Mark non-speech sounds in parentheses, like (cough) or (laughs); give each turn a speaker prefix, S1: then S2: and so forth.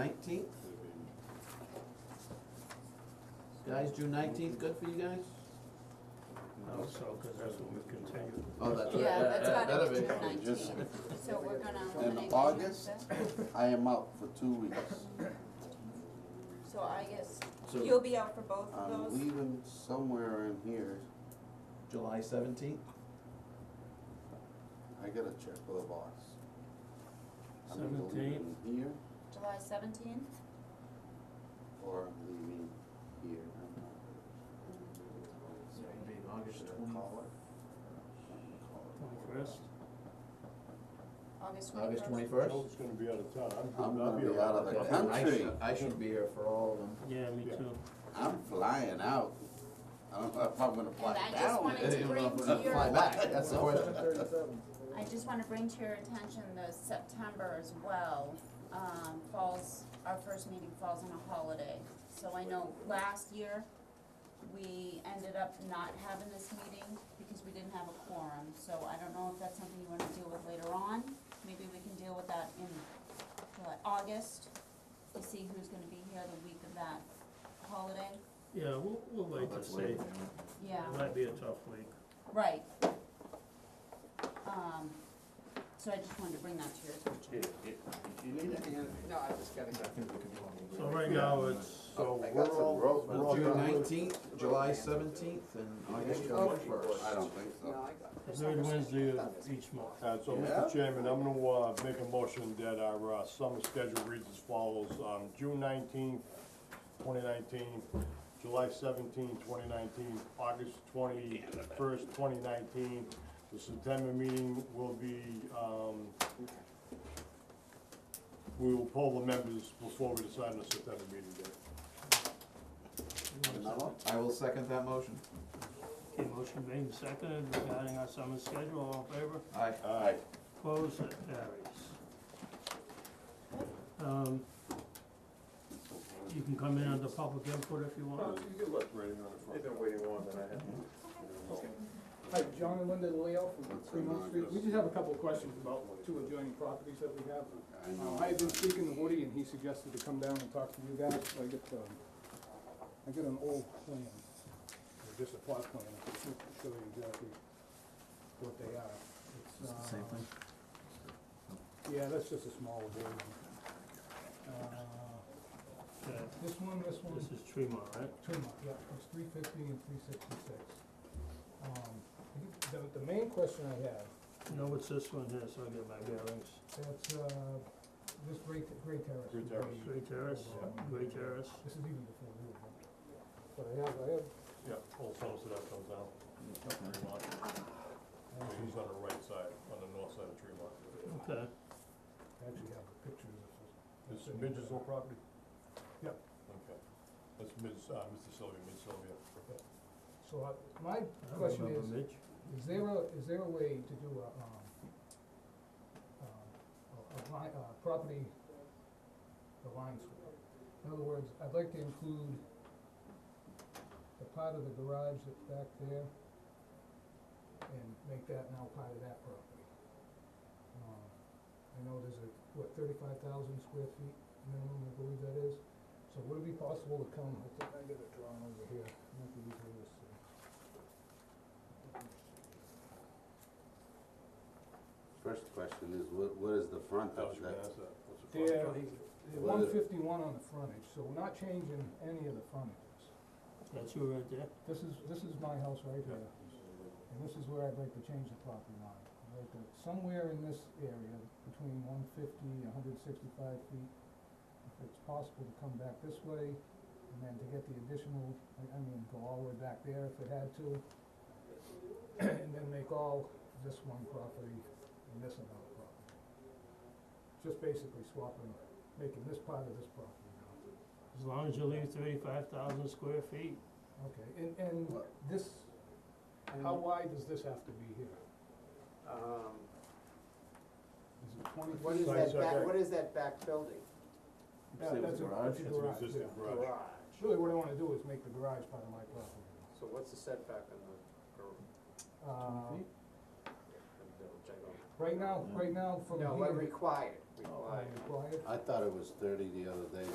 S1: Nineteenth? Guys, June nineteenth, good for you guys?
S2: Also, because that's what we continue.
S1: Oh, that's right.
S3: Yeah,
S1: that-
S3: that's
S1: that-
S3: gotta be
S1: that'll
S3: June
S4: Okay, just-
S3: nineteenth, so we're gonna
S4: In
S3: eliminate.
S4: August,
S3: Wednesday.
S4: I am out for two weeks.
S3: So I guess,
S1: So-
S3: you'll be out for both of
S4: I'm
S3: those?
S4: leaving somewhere in here.
S1: July seventeenth?
S4: I gotta check with the boss. I'm either
S2: Seventeenth.
S4: leaving Here,
S3: July seventeenth?
S4: or I'm leaving here. I'm not
S1: Be August
S4: Should I call it?
S2: Twenty-first,
S3: August
S1: August
S3: twenty-first?
S1: twenty-first?
S5: Joe's gonna be out of town, I'm,
S4: I'm
S5: I'll
S4: gonna
S5: be
S4: be out of the
S5: around.
S4: country.
S1: I should be here for all of them.
S2: yeah, me
S5: Yeah.
S2: too.
S4: I'm flying out. I don't know if I'm gonna fly
S3: And I
S4: down.
S3: just
S4: (laughs)
S3: wanted to
S1: Even though
S3: bring
S1: I'm
S3: to
S1: gonna
S3: your,
S1: Fly back, that's the question.
S3: I just wanna bring to your attention the September as well, um, falls, our first meeting falls on a holiday. So I know last year, we ended up not having this meeting because we didn't have a quorum, so I don't know if that's something you wanna deal with later on. Maybe we can deal with that in July, August, to see who's gonna be here the week of that holiday.
S2: Yeah, we'll, we'll wait to
S1: That's
S2: see.
S1: late.
S3: Yeah.
S2: It might be a tough week.
S3: Right. Um, so I just wanted to bring that to your attention.
S4: You need a hand?
S6: No, I just gotta
S1: I
S6: go.
S1: think we can do all of
S2: So
S1: them.
S2: right now, it's,
S5: So
S4: I got
S5: we're
S4: some
S5: all,
S4: rope.
S5: we're all
S1: June
S5: done with-
S1: nineteenth, July seventeenth, and
S4: Oh,
S1: August twenty-first.
S4: I don't think
S6: No,
S4: so.
S6: I got
S2: the third Wednesday of each month.
S5: Uh, so,
S4: Yeah?
S5: Mr. Chairman, I'm gonna, uh, make a motion that our, uh, summer schedule reads as follows, um, June nineteenth, twenty nineteen, July 17, 2019, August twenty-first, twenty nineteen. The September meeting will be, um, we will poll the members before we decide on the September meeting date.
S4: Another?
S1: I will second that motion.
S2: Okay, motion being seconded regarding our summer schedule, all in favor?
S1: Aye.
S4: Aye.
S2: Opposed, that carries. Um, you can come in under public input if you want.
S5: You can look right in on the front. been waiting longer than I have.
S7: Hi, John and Linda Leo from
S4: What's going on,
S7: Fremont Street. We
S4: Chris?
S7: just have a couple of questions about two adjoining properties that we have.
S4: I know.
S7: Uh, I had been speaking to Woody and he suggested to come down and talk to you guys, so I get, um, I get an old plan. or Just a plot plan, I can show- show you exactly what they are. It's,
S1: It's the same
S7: uh,
S1: thing?
S7: Yeah, that's just a small one. Uh,
S2: Okay,
S7: This one, this one.
S2: this is Tremont, right?
S7: Tremont, yeah, it's three fifty and three sixty-six. Um, I think the, the main question I have
S2: No, it's this one here, so I get my bearings.
S7: That's, uh, this Great, Great Terrace.
S5: Great Terrace.
S2: Gray Terrace, Gray Terrace.
S7: This is even before we were born. But I have, I have,
S5: Yeah, old Somerset that comes out, Tremont. So He's on the right side, on the north side of Tremont.
S2: Okay,
S7: I actually have the pictures of this.
S5: This is Midge's old property?
S7: Yep.
S5: Okay. That's Ms., uh, Mr. Sylvia, Ms. Sylvia.
S7: So I, my
S2: I
S7: question
S2: remember
S7: is,
S2: Mitch.
S7: is there a, is there a way to do a, um, um, a, a line, uh, property, the line swap? In other words, I'd like to include the part of the garage that's back there and make that now part of that property. Um, I know there's a, what, thirty-five thousand square feet minimum, I believe that is. So would it be possible to come, I think I got it drawn over here, might be easier to see. Let me see.
S4: First question is, what, what is the front of
S5: How's your
S4: that?
S5: answer? What's the front?
S7: Yeah,
S4: Well,
S7: one
S4: the-
S7: fifty-one on the frontage, so we're not changing any of the frontages.
S2: That's uh, you right there?
S7: This is, this is my house right here, and this is where I'd like to change the property line. I'd like to, somewhere in this area, between one fifty and hundred sixty-five feet, if it's possible to come back this way, and then to get the additional, I, I mean, go all the way back there if it had to, and then make all this one property and this another property. Just basically swapping, making this part of this property now.
S2: As long as you leave thirty-five thousand square feet,
S7: Okay, and, and
S4: What?
S7: this, how wide does this have to be here?
S6: Um,
S7: Is it twenty?
S6: what is
S5: Side
S6: that
S5: setback.
S6: back, what is that back building?
S7: Yeah,
S1: Say it was
S7: that's a-
S1: garage?
S7: that's a
S5: It's an existing
S7: yeah.
S5: garage.
S7: Really, what I wanna do is make the garage part of my property.
S6: So what's the setback on the, gar-
S7: Uh,
S6: I'm double checking. Right now, right now, from here.
S7: No, we're required,
S6: Oh,
S7: required.
S6: required.
S7: Oh, uh,
S4: I thought it was thirty the other day,